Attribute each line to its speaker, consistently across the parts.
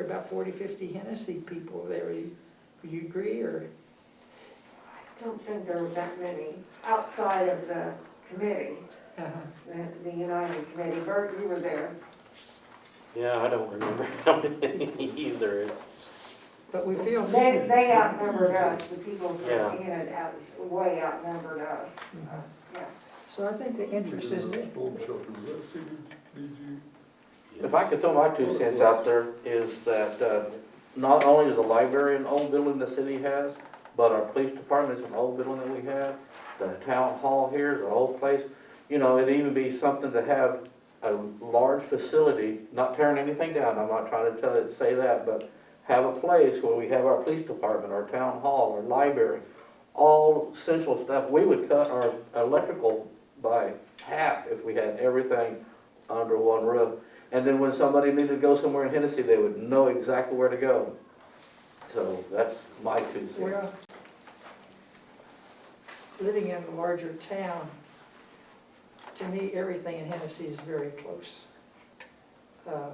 Speaker 1: about 40, 50 Hennessy people there. Would you agree, or?
Speaker 2: I don't think there were that many outside of the committee,
Speaker 1: uh-huh.
Speaker 2: the, the United Committee. Bert, you were there.
Speaker 3: Yeah, I don't remember how many either, it's,
Speaker 1: But we feel.
Speaker 2: They, they outnumbered us, the people from
Speaker 3: Yeah.
Speaker 2: Enid out, way outnumbered us.
Speaker 1: Mhm.
Speaker 2: Yeah.
Speaker 1: So I think the interest is,
Speaker 4: Storm shelter, was that CDBG?
Speaker 5: If I could throw my two cents out there, is that uh, not only is the library an old building the city has, but our police department is an old building that we have, the town hall here is an old place. You know, it'd even be something to have a large facility, not tearing anything down, I'm not trying to tell, say that, but have a place where we have our police department, our town hall, our library, all essential stuff. We would cut our electrical by half if we had everything under one roof. And then when somebody needed to go somewhere in Hennessy, they would know exactly where to go. So that's my two cents.
Speaker 1: well, living in a larger town, to me, everything in Hennessy is very close. Uh,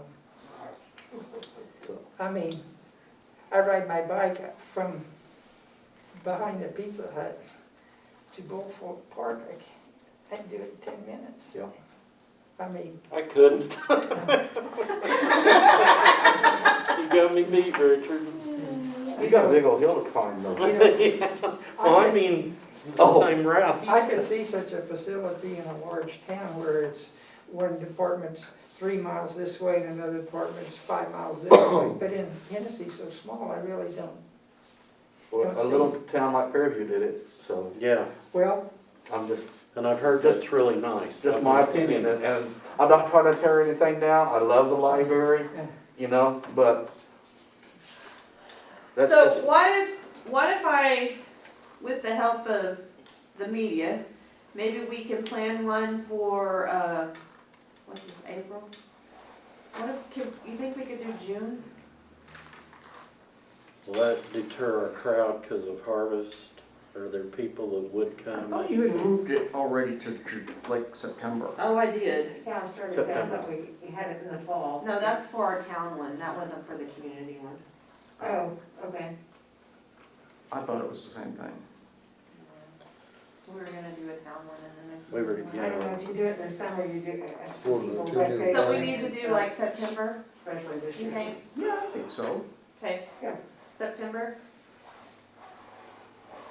Speaker 5: So,
Speaker 1: I mean, I ride my bike from behind the Pizza Hut to Bullford Park. I can't- I can do it in 10 minutes.
Speaker 5: Yeah.
Speaker 1: I mean,
Speaker 3: I couldn't. You got me beat, Richard.
Speaker 5: You got a big old hill to climb though.
Speaker 1: you know,
Speaker 3: Well, I mean, the
Speaker 5: Oh.
Speaker 3: same route.
Speaker 1: I could see such a facility in a large town where it's one department's three miles this way and another department's five miles this way. But in Hennessy, so small, I really don't.
Speaker 5: Well, A little town like Fairview did it, so
Speaker 3: Yeah,
Speaker 1: Well,
Speaker 5: I'm just,
Speaker 3: and I've heard that's really nice.
Speaker 5: just my opinion. And and I'm not trying to tear anything down. I love the library, you know, but that's
Speaker 6: So
Speaker 5: just,
Speaker 6: what if, what if I, with the help of the media, maybe we can plan one for, uh, what's this, April? What if, could, you think we could do June?
Speaker 3: Will that deter a crowd because of harvest? Are there people that would
Speaker 7: I
Speaker 3: come?
Speaker 7: thought you had moved it already to, Ju- like September.
Speaker 6: Oh, I did.
Speaker 2: Yeah, I started saying that we had it in the fall.
Speaker 6: No, that's for our town one, that wasn't for the community one.
Speaker 2: Oh, okay.
Speaker 7: I thought it was the same thing.
Speaker 6: We were gonna do a town one and then.
Speaker 3: We were-
Speaker 2: I don't know if you do it in the summer, you do it. it's
Speaker 4: Well, the
Speaker 2: people
Speaker 4: two
Speaker 2: like
Speaker 4: days.
Speaker 2: they-
Speaker 6: So we need to do like September,
Speaker 2: Especially this
Speaker 6: you
Speaker 2: year.
Speaker 6: think?
Speaker 7: Yeah, I think so.
Speaker 6: Okay.
Speaker 2: Yeah.
Speaker 6: September?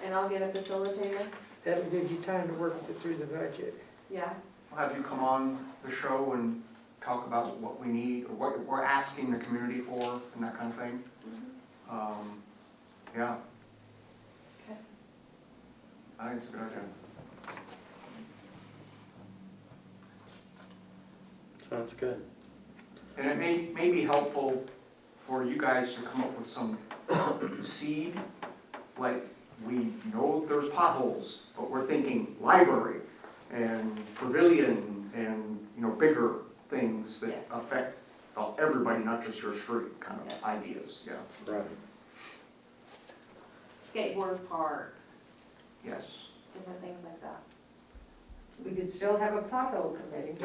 Speaker 6: And I'll get a facilitator?
Speaker 1: that'll give you time to work it through the budget.
Speaker 6: Yeah.
Speaker 7: I'll Have you come on the show and talk about what we need, or what we're asking the community for, and that kind of thing? Um, Yeah.
Speaker 6: Okay.
Speaker 7: I think it's a good idea.
Speaker 3: Sounds good.
Speaker 7: And it may, may be helpful for you guys to come up with some seed, like, we know there's potholes, but we're thinking library and pavilion and, you know, bigger things that
Speaker 6: Yes.
Speaker 7: affect uh, everybody, not just your street kind
Speaker 6: Yes.
Speaker 7: of ideas, yeah,
Speaker 3: Right.
Speaker 6: skateboard park,
Speaker 7: yes.
Speaker 6: different things like that.
Speaker 2: We could still have a pothole committee.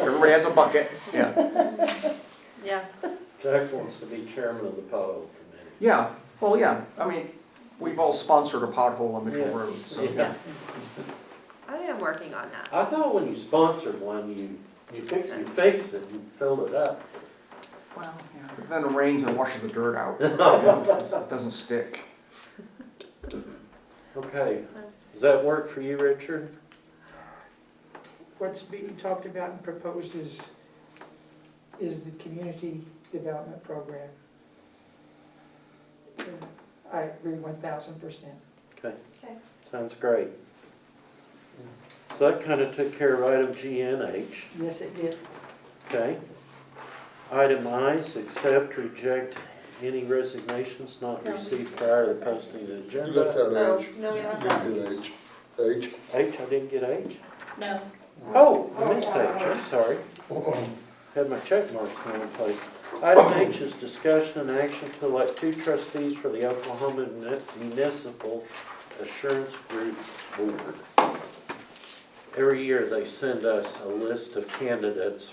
Speaker 7: Everybody has a bucket, yeah.
Speaker 6: Yeah.
Speaker 3: Jack wants to be chairman of the pothole committee.
Speaker 7: Yeah, well, yeah, I mean, we've all sponsored a pothole on Mitchell
Speaker 3: Yeah.
Speaker 7: Road, so.
Speaker 3: Yeah.
Speaker 6: I am working on that.
Speaker 3: I thought when you sponsored one, you, you fixed, you fixed it, you filled it up.
Speaker 7: Well, yeah. Then it rains and washes the dirt out. It Doesn't stick.
Speaker 3: Okay, does that work for you, Richard?
Speaker 1: What's being talked about and proposed is, is the community development program. And I agree one thousand percent.
Speaker 3: Okay.
Speaker 6: Okay.
Speaker 3: Sounds great. So that kind of took care of item G and H,
Speaker 1: Yes, it did.
Speaker 3: okay? Item I's, accept, reject any resignations not received prior to posting of the
Speaker 4: You left
Speaker 3: agenda.
Speaker 4: out H.
Speaker 6: no, Oh, we
Speaker 4: You
Speaker 6: left
Speaker 4: did
Speaker 6: out
Speaker 4: H. H.
Speaker 3: H, I didn't get H?
Speaker 6: No.
Speaker 3: Oh, I missed H, I'm sorry. Had my check mark in the place. Item H is discussion and action to elect two trustees for the Oklahoma Muni- Municipal Assurance Group Board. Every year, they send us a list of candidates